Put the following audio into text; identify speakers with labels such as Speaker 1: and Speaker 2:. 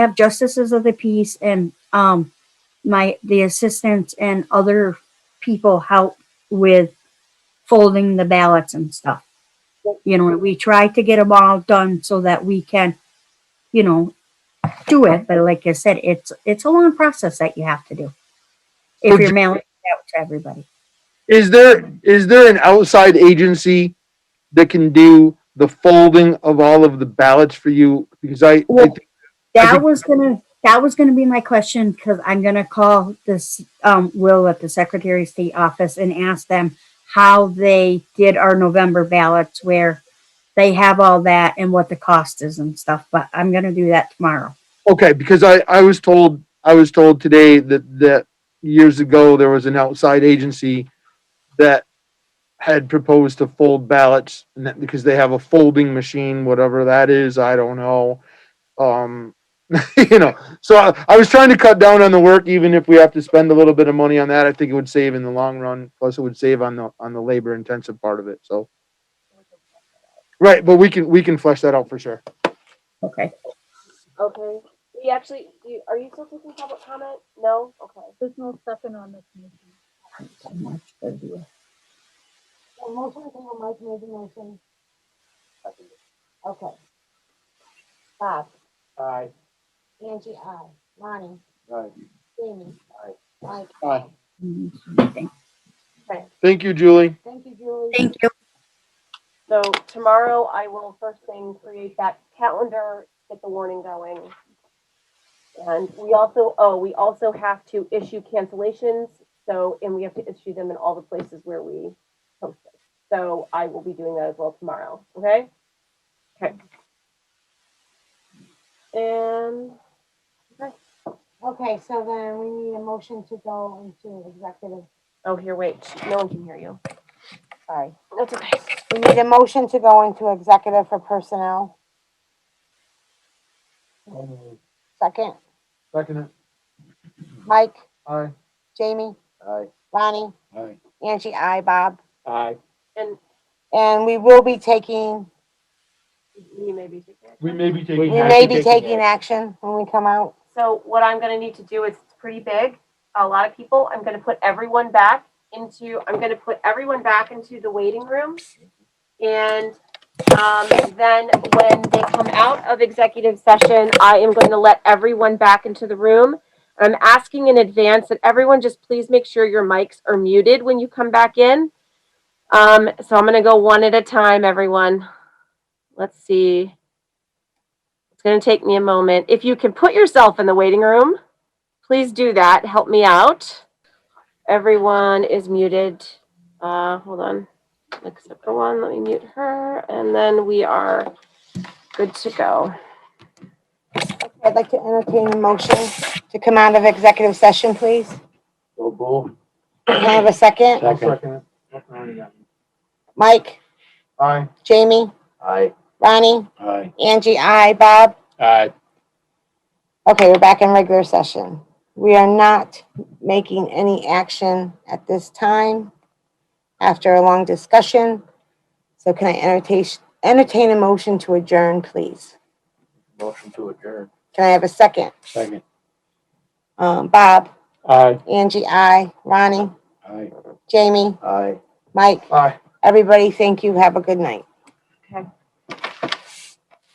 Speaker 1: have justices of the peace and um my the assistants and other people help with folding the ballots and stuff. You know, we try to get them all done so that we can, you know, do it. But like I said, it's it's a long process that you have to do if
Speaker 2: So
Speaker 1: you're
Speaker 2: ju-
Speaker 1: mailing it out to everybody.
Speaker 2: Is there, is there an outside agency that can do the folding of all of the ballots for you? Because I, I
Speaker 1: Well-
Speaker 2: think I
Speaker 1: That
Speaker 2: think-
Speaker 1: was gonna, that was gonna be my question, because I'm gonna call this, um, Will at the Secretary of State office and ask them how they did our November ballots where they have all that and what the cost is and stuff, but I'm gonna do that tomorrow.
Speaker 2: okay, because I, I was told, I was told today that, that years ago, there was an outside agency that had proposed to fold ballots and that, because they have a folding machine, whatever that is, I don't know. Um, you know, so I, I was trying to cut down on the work, even if we have to spend a little bit of money on that, I think it would save in the long run. Plus it would save on the, on the labor intensive part of it, so. Right, but we can, we can flesh that out for sure.
Speaker 1: Okay.
Speaker 3: Okay. We actually, do you, are you still taking public comment? No? Okay.
Speaker 4: There's no second on this motion.
Speaker 3: Motion, Mike made the motion. Okay. Bob,
Speaker 2: Aye.
Speaker 3: Angie, I, Lonnie,
Speaker 2: Aye.
Speaker 3: Jamie.
Speaker 2: Aye.
Speaker 3: Mike.
Speaker 2: Aye.
Speaker 1: Thank
Speaker 2: Thank you, Julie.
Speaker 3: Thank you, Julie.
Speaker 1: you.
Speaker 3: So tomorrow I will first thing create that calendar, get the warning going. And we also, oh, we also have to issue cancellations. So, and we have to issue them in all the places where we post it. So I will be doing that as well tomorrow. Okay? Okay. And
Speaker 5: Okay, so then we need a motion to go into executive.
Speaker 3: oh, here, wait. No one can hear you.
Speaker 5: Sorry.
Speaker 3: That's okay.
Speaker 5: We need a motion to go into executive for personnel. Second,
Speaker 2: Second. Mm-hmm.
Speaker 5: Mike,
Speaker 2: Aye.
Speaker 5: Jamie,
Speaker 2: Aye.
Speaker 5: Ronnie,
Speaker 2: Aye.
Speaker 5: Angie, I, Bob.
Speaker 2: Aye.
Speaker 3: And
Speaker 5: And we will be taking,
Speaker 3: you may be.
Speaker 2: We may be taking.
Speaker 5: we may be taking action when we come out.
Speaker 3: So what I'm gonna need to do is it's pretty big, a lot of people. I'm gonna put everyone back into, I'm gonna put everyone back into the waiting room. And um, then when they come out of executive session, I am going to let everyone back into the room. I'm asking in advance that everyone just please make sure your mics are muted when you come back in. Um, so I'm gonna go one at a time, everyone. Let's see. It's going to take me a moment. If you can put yourself in the waiting room, please do that. Help me out. Everyone is muted. Uh, hold on. Except for one, let me mute her, and then we are good to go.
Speaker 5: I'd like to entertain a motion to come out of executive session, please. Can I have a second?
Speaker 2: Second.
Speaker 5: Mike,
Speaker 2: Aye.
Speaker 5: Jamie,
Speaker 2: Aye.
Speaker 5: Ronnie,
Speaker 2: Aye.
Speaker 5: Angie, I, Bob.
Speaker 2: Aye.
Speaker 5: Okay, we're back in regular session. We are not making any action at this time after a long discussion. So can I entertain, entertain a motion to adjourn, please?
Speaker 2: Motion to adjourn.
Speaker 5: Can I have a second?
Speaker 2: Second.
Speaker 5: Um, Bob,
Speaker 2: Aye.
Speaker 5: Angie, I, Ronnie,
Speaker 2: Aye.
Speaker 5: Jamie,
Speaker 2: Aye.
Speaker 5: Mike,
Speaker 2: Aye.
Speaker 5: everybody, thank you. Have a good night.
Speaker 3: Okay.